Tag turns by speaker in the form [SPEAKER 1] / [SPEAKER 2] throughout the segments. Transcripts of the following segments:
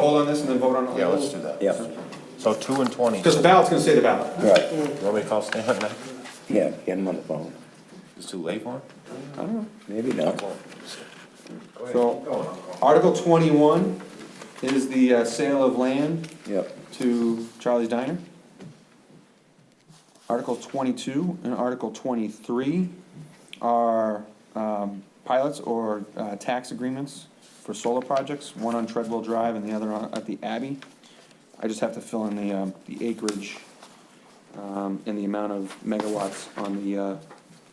[SPEAKER 1] poll on this and then vote on it?
[SPEAKER 2] Yeah, let's do that.
[SPEAKER 3] Yeah,
[SPEAKER 2] So two and twenty.
[SPEAKER 1] Because the ballot's gonna say the ballot.
[SPEAKER 3] right,
[SPEAKER 2] You want me to call Stan now?
[SPEAKER 3] yeah, get him on the phone,
[SPEAKER 2] It's too late for him?
[SPEAKER 3] maybe not.
[SPEAKER 1] So, Article twenty-one is the uh, sale of land
[SPEAKER 3] Yep,
[SPEAKER 1] to Charlie's Diner. Article twenty-two and Article twenty-three are um, pilots or uh, tax agreements for solar projects, one on Treadwell Drive and the other on- at the Abbey. I just have to fill in the, um, the acreage um, and the amount of megawatts on the, uh,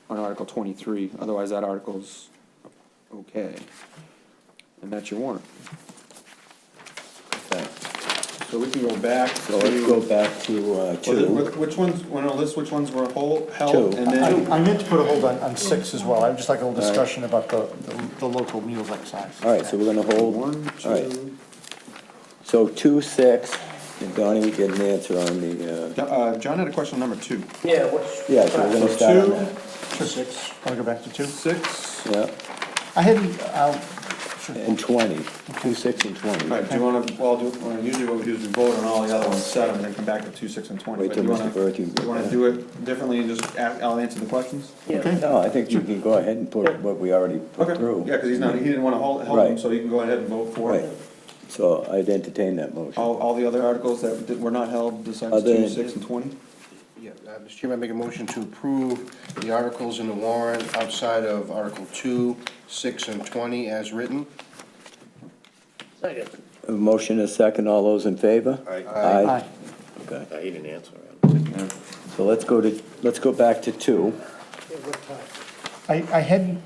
[SPEAKER 1] on Article twenty-three, otherwise that article's okay. And that's your warrant.
[SPEAKER 3] okay.
[SPEAKER 1] So we can go back to.
[SPEAKER 3] So let's go back to, uh,
[SPEAKER 1] Well, the-
[SPEAKER 3] two.
[SPEAKER 1] wh- Which ones, wanna list which ones were whole, held,
[SPEAKER 3] Two.
[SPEAKER 1] and then,
[SPEAKER 4] I I meant to put a hold on, on six as well, I would just like a little discussion about the, the- the local meals excise.
[SPEAKER 3] All right, so we're gonna hold.
[SPEAKER 1] one,
[SPEAKER 3] All right.
[SPEAKER 1] two,
[SPEAKER 3] So two, six, and Donnie didn't answer on the, uh,
[SPEAKER 1] uh, John had a question on number two.
[SPEAKER 5] Yeah, what's?
[SPEAKER 3] yeah, so we're gonna start on
[SPEAKER 1] Two,
[SPEAKER 3] that.
[SPEAKER 4] Six, wanna go back to two?
[SPEAKER 1] six,
[SPEAKER 3] Yeah,
[SPEAKER 4] I hadn't, uh,
[SPEAKER 3] and twenty. Two, six, and twenty.
[SPEAKER 1] alright, do you wanna, well, do, well, usually what we do is we vote on all the other ones, seven, and then come back to two, six, and twenty.
[SPEAKER 3] Wait
[SPEAKER 1] But
[SPEAKER 3] till
[SPEAKER 1] you
[SPEAKER 3] Mr.
[SPEAKER 1] wanna-
[SPEAKER 3] Berkey-
[SPEAKER 1] You wanna do it differently and just ask, I'll answer the questions?
[SPEAKER 5] Yeah,
[SPEAKER 3] No, I think you can go ahead and put what we already
[SPEAKER 1] Okay,
[SPEAKER 3] put through.
[SPEAKER 1] yeah, cause he's not, he didn't wanna hold, hold them,
[SPEAKER 3] Right.
[SPEAKER 1] so you can go ahead and vote for
[SPEAKER 3] Right, so I'd entertain that motion.
[SPEAKER 1] all, all the other articles that did- were not held besides
[SPEAKER 3] Other-
[SPEAKER 1] two, six, and twenty?
[SPEAKER 6] Yeah, uh, Mr. Chairman, I make a motion to approve the articles in the warrant outside of Article 2, 6, and 20 as written.
[SPEAKER 5] second.
[SPEAKER 3] A Motion is second, all those in favor?
[SPEAKER 2] Aye.
[SPEAKER 3] Aye.
[SPEAKER 4] Aye.
[SPEAKER 3] Okay,
[SPEAKER 2] He didn't answer.
[SPEAKER 3] so let's go to, let's go back to two.
[SPEAKER 4] I, I hadn't,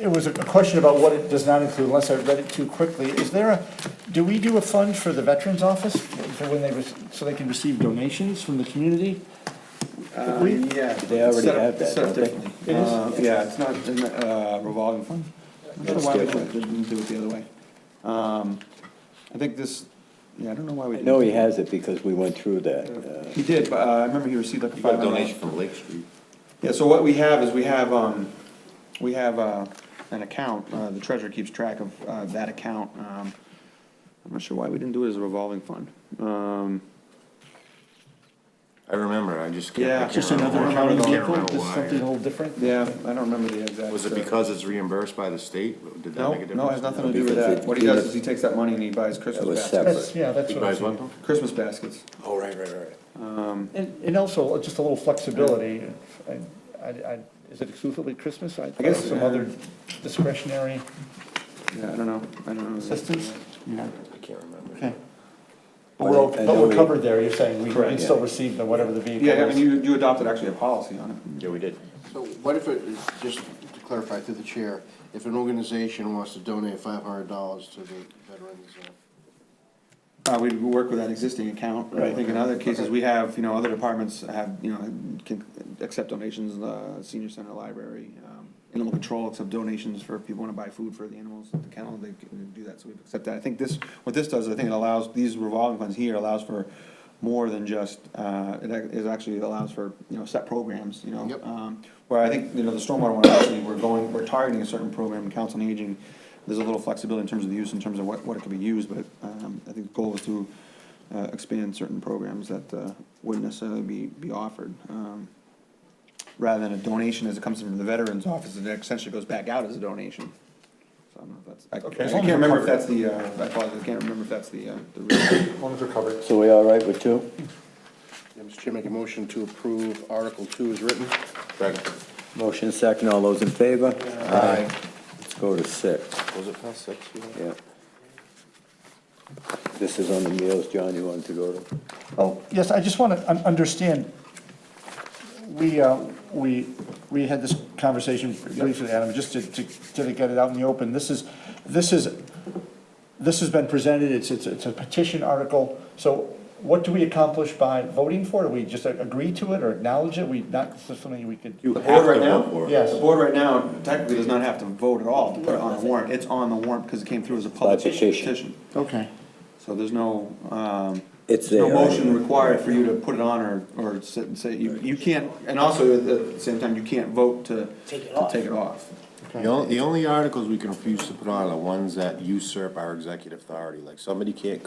[SPEAKER 4] it was a question about what it does not include, unless I read it too quickly. Is there a, do we do a fund for the Veterans Office, for when they, rec- so they can receive donations from the community?
[SPEAKER 2] Uh,
[SPEAKER 4] We-
[SPEAKER 1] Yeah.
[SPEAKER 3] They already
[SPEAKER 1] Set up-
[SPEAKER 3] have that,
[SPEAKER 1] Set up
[SPEAKER 3] don't they?
[SPEAKER 1] differently.
[SPEAKER 4] It is?
[SPEAKER 1] Uh, Yeah, it's not in the, uh, revolving fund. I don't know
[SPEAKER 3] That's
[SPEAKER 1] why we
[SPEAKER 3] different.
[SPEAKER 1] didn't do it the other way. Um, I think this, yeah, I don't know why we.
[SPEAKER 3] I know he
[SPEAKER 1] didn't
[SPEAKER 3] has it because we went through that. uh,
[SPEAKER 1] do it. He did, but uh, I remember he received like a
[SPEAKER 2] You got
[SPEAKER 1] five
[SPEAKER 2] a donation
[SPEAKER 1] hundred.
[SPEAKER 2] from Lake Street.
[SPEAKER 1] Yeah, so what we have is we have, um, we have, uh, an account, uh, the treasurer keeps track of, uh, that account. Um, I'm not sure why we didn't do it as a revolving fund. Um,
[SPEAKER 2] I remember, I just. can't- I
[SPEAKER 1] Yeah.
[SPEAKER 2] can't
[SPEAKER 4] Just
[SPEAKER 2] remember
[SPEAKER 4] another
[SPEAKER 2] why.
[SPEAKER 4] accounting
[SPEAKER 2] I can't
[SPEAKER 4] vehicle,
[SPEAKER 2] remember
[SPEAKER 4] just
[SPEAKER 2] why.
[SPEAKER 4] something a little different?
[SPEAKER 1] yeah, I don't remember the exact.
[SPEAKER 2] Was it
[SPEAKER 1] uh,
[SPEAKER 2] because it's reimbursed by the state? Did that
[SPEAKER 1] No,
[SPEAKER 2] make a difference?
[SPEAKER 1] no, it has nothing to do with
[SPEAKER 3] Because
[SPEAKER 1] that.
[SPEAKER 3] it-
[SPEAKER 1] What he does is he takes that money and he buys Christmas
[SPEAKER 3] That was
[SPEAKER 1] baskets.
[SPEAKER 3] separate.
[SPEAKER 4] That's, yeah, that's
[SPEAKER 2] You
[SPEAKER 4] what I
[SPEAKER 2] guys
[SPEAKER 4] was
[SPEAKER 2] want
[SPEAKER 4] thinking.
[SPEAKER 2] them?
[SPEAKER 1] Christmas baskets.
[SPEAKER 2] Oh, right, right, right.
[SPEAKER 4] And, and also, just a little flexibility, and I, I, is it exclusively Christmas? I
[SPEAKER 1] guess,
[SPEAKER 4] guess some
[SPEAKER 1] uh,
[SPEAKER 4] other discretionary
[SPEAKER 1] Yeah, I don't know, I don't know.
[SPEAKER 4] assistance?
[SPEAKER 2] I can't remember.
[SPEAKER 4] Okay. But we're,
[SPEAKER 3] I
[SPEAKER 4] okay- but
[SPEAKER 3] know
[SPEAKER 4] we're
[SPEAKER 3] we-
[SPEAKER 4] covered there, you're saying, we
[SPEAKER 1] Correct,
[SPEAKER 4] can still receive the, whatever the vehicle
[SPEAKER 1] Yeah, I mean,
[SPEAKER 4] is.
[SPEAKER 1] you, you adopted actually a policy on it.
[SPEAKER 2] Yeah, we did.
[SPEAKER 6] So what if it, just to clarify through the chair, if an organization wants to donate $500 to the veterans? uh,
[SPEAKER 1] Uh, we work with that existing account, I think in other cases, we have, you know, other departments have, you know, can accept donations, uh, senior center, library, um, animal control accept donations for, if people wanna buy food for the animals at the kennel, they can do that, so we accept that. I think this, what this does, I think it allows, these revolving funds here allows for more than just, uh, it, ac- it actually allows for, you know, set programs, you know?
[SPEAKER 6] Yep.
[SPEAKER 1] Um, Where I think, you know, the stormwater one, actually, we're going, we're targeting a certain program, council on aging, there's a little flexibility in terms of the use, in terms of what, what it could be used, but, um, I think the goal is to, uh, expand certain programs that, uh, wouldn't necessarily be, be offered. Um, Rather than a donation as it comes from the veterans office, it essentially goes back out as a donation. So I don't know if that's, I- I
[SPEAKER 4] as long as
[SPEAKER 1] can't
[SPEAKER 4] we're
[SPEAKER 1] remember if
[SPEAKER 4] covered.
[SPEAKER 1] that's the, uh, I apologize, I can't remember if that's the, uh, the real.
[SPEAKER 4] As long as we're covered.
[SPEAKER 3] So we all right with two?
[SPEAKER 6] yeah, Mr. Chair, make a motion to approve Article 2 as written.
[SPEAKER 2] Correct.
[SPEAKER 3] Motion second, all those in favor?
[SPEAKER 6] Aye.
[SPEAKER 3] Let's go to six,
[SPEAKER 2] Was it past six? you know?
[SPEAKER 3] yeah. This is on the meals, John, you wanted to go to?
[SPEAKER 4] Oh, yes, I just want to understand, we, uh, we, we had this conversation briefly, Adam, just to, to to get it out in the open. This is, this is, this has been presented, it's, it's it's a petition article, so what do we accomplish by voting for it? Do we just agree to it or acknowledge it? We not, this is something we could?
[SPEAKER 2] You
[SPEAKER 1] The
[SPEAKER 2] have
[SPEAKER 1] board
[SPEAKER 2] to
[SPEAKER 1] right now?
[SPEAKER 2] vote for it.
[SPEAKER 4] Yes.
[SPEAKER 1] The board right now technically does not have to vote at all to put it on the warrant, it's on the warrant because it came through as a public
[SPEAKER 3] By petition.
[SPEAKER 1] petition.
[SPEAKER 4] Okay.
[SPEAKER 1] So there's no, um,
[SPEAKER 3] It's
[SPEAKER 1] there's no
[SPEAKER 3] there.
[SPEAKER 1] motion required for you to put it on or, or sit and say, you, you can't, and also at the same time, you can't vote to,
[SPEAKER 5] Take it
[SPEAKER 1] to
[SPEAKER 5] off.
[SPEAKER 1] take it off.
[SPEAKER 2] The only, the only articles we can refuse to put on are the ones that usurp our executive authority, like somebody can't